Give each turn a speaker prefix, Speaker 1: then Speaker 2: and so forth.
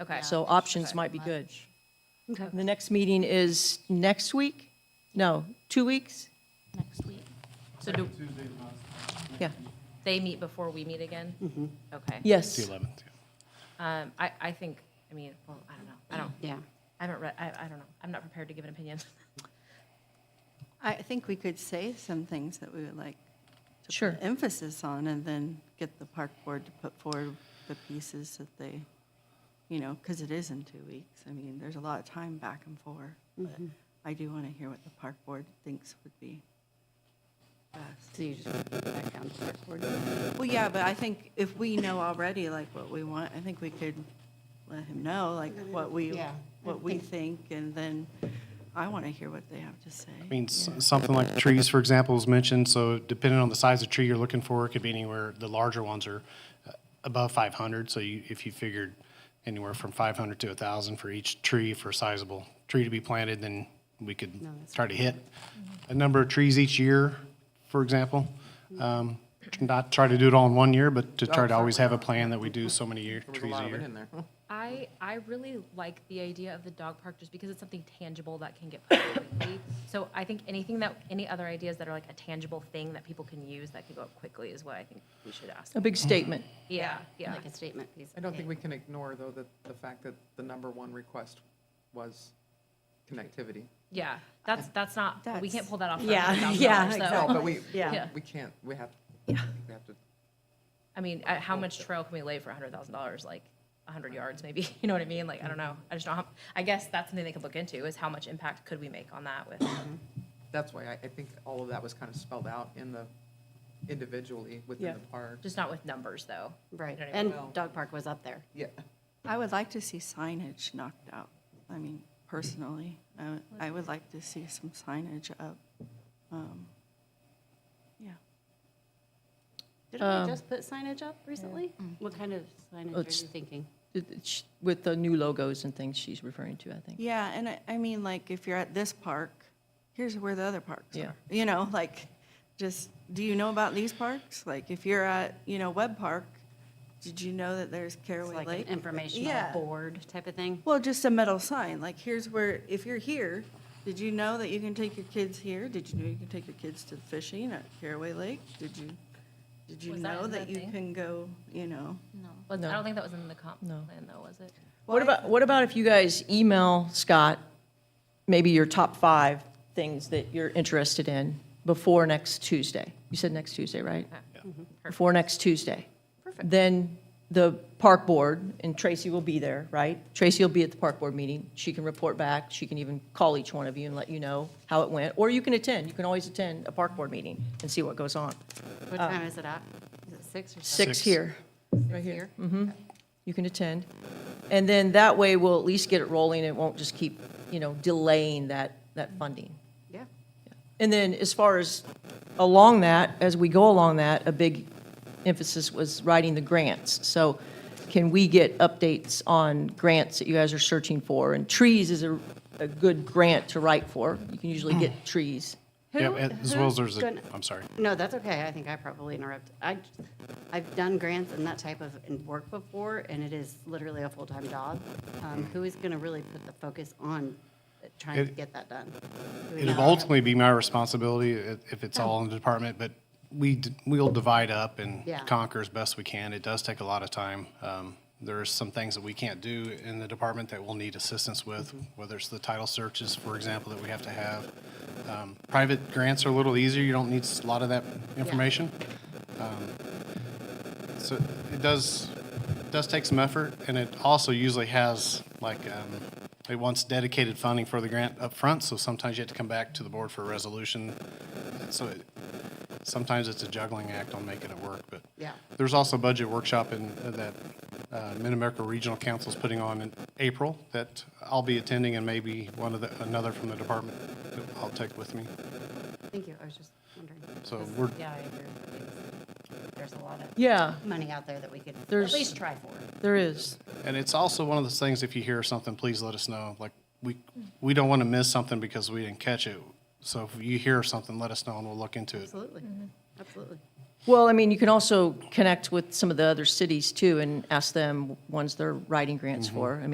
Speaker 1: Okay.
Speaker 2: So options might be good.
Speaker 3: Okay.
Speaker 2: The next meeting is next week? No, two weeks?
Speaker 1: Next week. So do
Speaker 2: Yeah, Mm-hmm.
Speaker 1: they meet before we meet again? Okay.
Speaker 2: yes.
Speaker 1: Um, I, I think, I mean, well, I don't know. I don't,
Speaker 3: Yeah.
Speaker 1: I haven't read, I, I don't know. I'm not prepared to give an opinion.
Speaker 4: I think we could say some things that we would like to put
Speaker 2: Sure.
Speaker 4: emphasis on, and then get the park board to put forward the pieces that they, you know, because it is in two weeks. I mean, there's a lot of time back and forth, but
Speaker 3: Mm-hmm.
Speaker 4: I do want to hear what the park board thinks would be best.
Speaker 3: So you just put it back on the park board.
Speaker 4: Well, yeah, but I think if we know already like what we want, I think we could let him know like what we,
Speaker 3: Yeah.
Speaker 4: what we think, and then I want to hear what they have to
Speaker 5: I
Speaker 4: say.
Speaker 5: mean, s- something like trees, for example, was mentioned, so depending on the size of tree you're looking for, it could be anywhere, the larger ones are uh, above five hundred, so you, if you figured anywhere from five hundred to thousand for each tree, for a sizable tree to be planted, then we could try to hit
Speaker 3: Mm-hmm.
Speaker 5: a number of trees each year, for example. Um, Not try to do it all in one year, but to try to always have a plan that we do so many year,
Speaker 6: Oh, There was a
Speaker 5: trees a
Speaker 6: lot of it
Speaker 5: year.
Speaker 6: in there.
Speaker 1: I, I really like the idea of the dog park just because it's something tangible that can get put up quickly. So I think anything that, any other ideas that are like a tangible thing that people can use that can go up quickly is what I think we should ask.
Speaker 2: A big statement.
Speaker 1: Yeah, yeah.
Speaker 3: Like a statement piece.
Speaker 6: I don't think we can ignore, though, that the fact that the number one request was connectivity.
Speaker 1: Yeah, that's, that's not, we can't
Speaker 4: That's-
Speaker 1: pull that off. for
Speaker 3: Yeah,
Speaker 1: $100,000,
Speaker 3: yeah,
Speaker 1: so-
Speaker 6: No, but we,
Speaker 3: Yeah.
Speaker 6: we can't, we have, we
Speaker 3: Yeah.
Speaker 6: have to,
Speaker 1: I mean, uh, how much trail can we lay for hundred thousand dollars? Like a hundred yards, maybe. You know what I mean? Like I don't know. I just don't. How, I guess that's something they could look into is how much impact could we make on that with.
Speaker 6: that's why I, I think all of that was kind of spelled out in the, individually within
Speaker 2: Yeah.
Speaker 6: the park.
Speaker 1: Just not with numbers, though.
Speaker 3: Right.
Speaker 1: You know what I
Speaker 3: And
Speaker 1: mean?
Speaker 3: dog park was up there.
Speaker 6: Yeah,
Speaker 4: I would like to see signage knocked out. I mean, personally, I would, I would like to see some signage up. Um, Yeah,
Speaker 3: Didn't we just put signage up recently? What kind of signage are
Speaker 2: It's-
Speaker 3: you thinking?
Speaker 2: It- it's With the new logos and things she's referring to, I think.
Speaker 4: yeah, and I, I mean, like, if you're at this park, here's where the other parks
Speaker 2: Yeah.
Speaker 4: are. You know, like, just, do you know about these parks? Like, if you're at, you know, Webb Park, did you know that there's
Speaker 3: It's
Speaker 4: Caraway
Speaker 3: like an
Speaker 4: Lake?
Speaker 3: informational
Speaker 4: Yeah.
Speaker 3: board type of thing?
Speaker 4: Well, just a metal sign, like here's where, if you're here, did you know that you can take your kids here? Did you know you can take your kids to fishing at Caraway Lake? Did you, did you
Speaker 1: Was that
Speaker 4: know
Speaker 1: in
Speaker 4: that
Speaker 1: the
Speaker 4: you
Speaker 1: thing?
Speaker 4: can go, you know?
Speaker 1: No. I don't think that was in the comp
Speaker 2: No.
Speaker 1: plan, though, was it?
Speaker 2: What about, what about if you guys email Scott, maybe your top five things that you're interested in before next Tuesday? You said next Tuesday, right? Before next Tuesday. Perfect. Then the park board, and Tracy will be there, right? Tracy will be at the park board meeting. She can report back. She can even call each one of you and let you know how it went. Or you can attend. You can always attend a park board meeting and see what goes on.
Speaker 3: What time is it at? Is it six or seven?
Speaker 2: Six
Speaker 5: Six.
Speaker 2: here.
Speaker 3: Right here.
Speaker 2: you can attend. And then that way, we'll at least get it rolling, it won't just keep, you know, delaying that, that funding.
Speaker 3: Yeah.
Speaker 2: And then as far as along that, as we go along that, a big emphasis was writing the grants. So can we get updates on grants that you guys are searching for? And trees is a, a good grant to write for, you can usually get trees.
Speaker 5: Yeah,
Speaker 3: Who-
Speaker 5: as well as
Speaker 3: who's
Speaker 5: there's a,
Speaker 3: gonna-
Speaker 5: I'm sorry.
Speaker 3: No, that's okay. I think I probably interrupted. I, I've done grants and that type of in- work before, and it is literally a full-time job. Um, Who is going to really put the focus on trying to
Speaker 5: It-
Speaker 3: get that done? Do we
Speaker 5: It'll
Speaker 3: know?
Speaker 5: ultimately be my responsibility i- if it's all in the department, but we, d- we'll divide up and
Speaker 3: Yeah.
Speaker 5: conquer as best we can. It does take a lot of time. Um, There are some things that we can't do in the department that we'll need assistance with, whether it's the title searches, for example, that we have to have. Um, Private grants are a little easier. You don't need s- a lot of that information. Um, So it does, does take some effort, and it also usually has, like, um, it wants dedicated funding for the grant up front. so sometimes you have to come back to the board for a resolution. So it- sometimes it's a juggling act on making it work, but.
Speaker 3: Yeah.
Speaker 5: There's also a budget workshop in, that uh, Mid-America Regional Council's putting on in April that I'll be attending, and maybe one of the, another from the department that I'll take with me.
Speaker 3: Thank you. I was just wondering.
Speaker 5: So
Speaker 3: 'Cause,
Speaker 5: we're-
Speaker 3: Yeah, I agree. with you. There's a lot of
Speaker 2: Yeah,
Speaker 3: money out there that we could at
Speaker 2: There's-
Speaker 3: least try for.
Speaker 2: there is.
Speaker 5: And it's also one of those things, if you hear something, please let us know. Like, we, we don't want to miss something because we didn't catch it. So if you hear something, let us know, and we'll look into it.
Speaker 3: Absolutely. Absolutely.
Speaker 2: Well, I mean, you can also connect with some of the other cities too and ask them ones they're writing grants for. I mean,